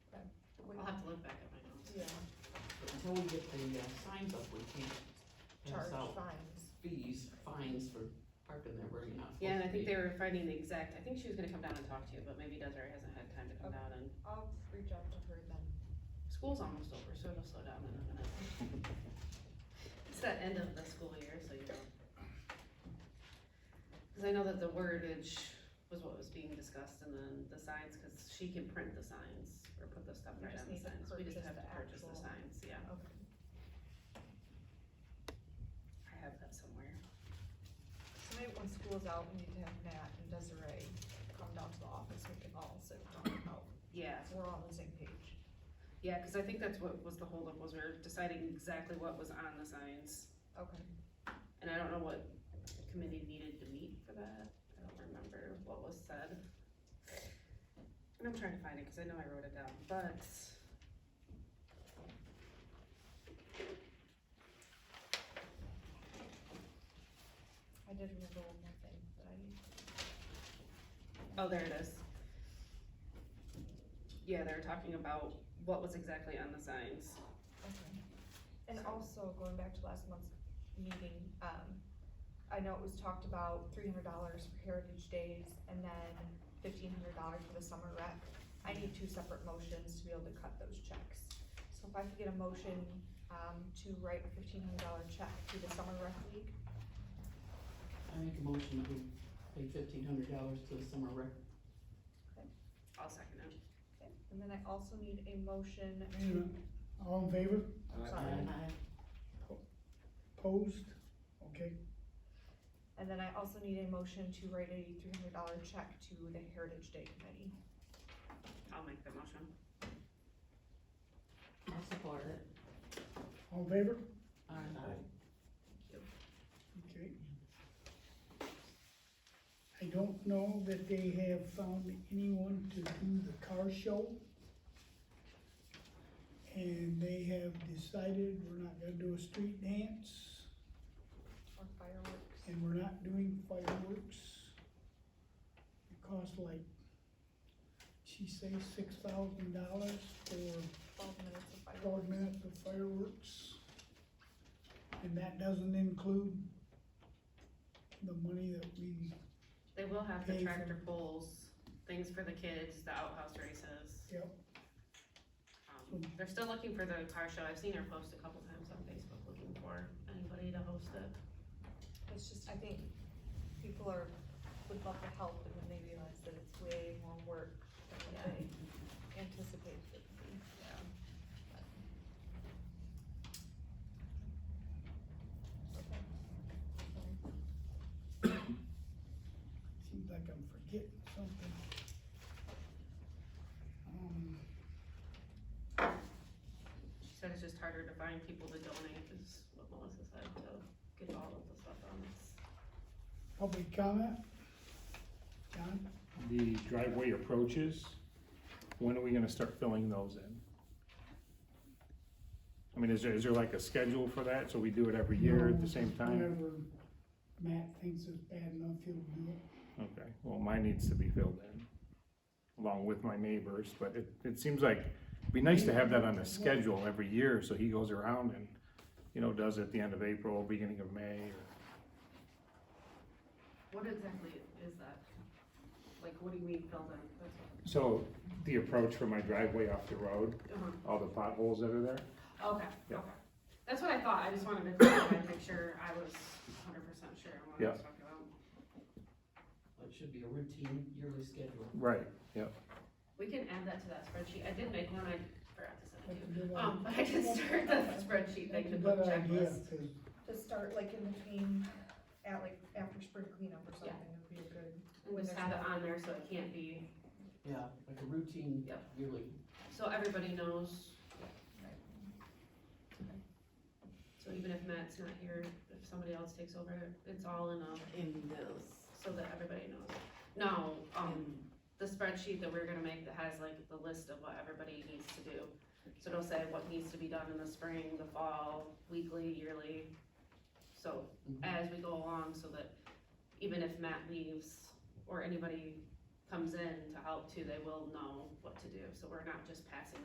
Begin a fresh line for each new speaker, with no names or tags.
until we get the uh, signs up, we can't
charge
pass out
fines.
fees, fines for parking there where you're not supposed to be.
Yeah, and I think they were finding the exact, I think she was gonna come down and talk to you, but maybe Desiree hasn't had time to come down and,
I'll reach out to her then.
school's almost over, so it'll slow down in a minute. It's that end of the school year, so you know. Cause I know that the wordage was what was being discussed and then the signs, cause she can print the signs or put the stuff
We
right
just
on the
need to
signs, we just
purchase
have to
the
purchase the
actual-
signs, yeah.
Okay.
I have that somewhere.
So maybe when school's out, we need to have Matt and Desiree come down to the office, we can all sit down and help.
Yeah,
We're all on the same page.
yeah, cause I think that's what was the holdup, was we we're deciding exactly what was on the signs.
Okay.
And I don't know what committee needed to meet for that, I don't remember what was said. And I'm trying to find it, cause I know I wrote it down, but.
I did remember one more thing that I need.
Oh, there it is. Yeah, they were talking about what was exactly on the signs.
Okay. And also, going back to last month's meeting, um, I know it was talked about three hundred dollars for Heritage Days and then fifteen hundred dollars for the summer rec. I need two separate motions to be able to cut those checks. So if I could get a motion, um, to write a fifteen hundred dollar check to the summer rec league,
I make a motion that we pay fifteen hundred dollars to the summer rec.
I'll second it.
and then I also need a motion
Wait a minute. All in favor?
Sorry.
Opposed? Okay,
And then I also need a motion to write a three hundred dollar check to the Heritage Day Committee.
I'll make the motion.
I'll support it.
all in favor?
Aye.
Okay. I don't know that they have found anyone to do the car show. And they have decided we're not gonna do a street dance
Or fireworks.
and we're not doing fireworks. It costs like, she says six thousand dollars for
Twelve minutes of fireworks.
twelve minutes of fireworks. And that doesn't include the money that we,
They will have the
Pay for-
tractor pulls, things for the kids, the outhouse races.
Yep.
Um, they're still looking for the car show, I've seen her post a couple times on Facebook looking for anybody to host it.
It's just, I think people are, would love the help and then they realize that it's way more work than what they anticipated it would be. Okay.
seems like I'm forgetting something. Um,
She said it's just harder to find people to donate, is what Melissa said, to get all of the stuff on this.
public comment? John,
the driveway approaches, when are we gonna start filling those in? I mean, is there, is there like a schedule for that, so we do it every year at the same time?
whenever Matt thinks it's bad enough, he'll do it.
Okay, well, mine needs to be filled in, along with my neighbors, but it, it seems like, it'd be nice to have that on a schedule every year, so he goes around and, you know, does it at the end of April, beginning of May, or,
What exactly is that? Like, what do you mean filled in? That's what-
so, the approach from my driveway off the road,
Uh-huh.
all the potholes that are there,
Okay,
Yeah.
okay. That's what I thought, I just wanted to clarify and make sure I was hundred percent sure on what I was talking about.
It should be a routine yearly schedule.
right,
We can add that to that spreadsheet, I did make one, I forgot to send it to you.
That's a good idea.
Um, but I can start that spreadsheet thing
That's
to
a
book
good idea,
checklist.
'cause
To start like in between, at like after spring cleanup or
Yeah.
something would be a good.
And just have it on there so it can't be,
Yeah, like a routine
Yep.
yearly.
so everybody knows. So even if Matt's not here, if somebody else takes over, it's all in a,
In those,
so that everybody knows. No, um,
um,
the spreadsheet that we're gonna make that has like the list of what everybody needs to do. So it'll say what needs to be done in the spring, the fall, weekly, yearly. So as we go along, so that even if Matt leaves or anybody comes in to help too, they will know what to do. So we're not just passing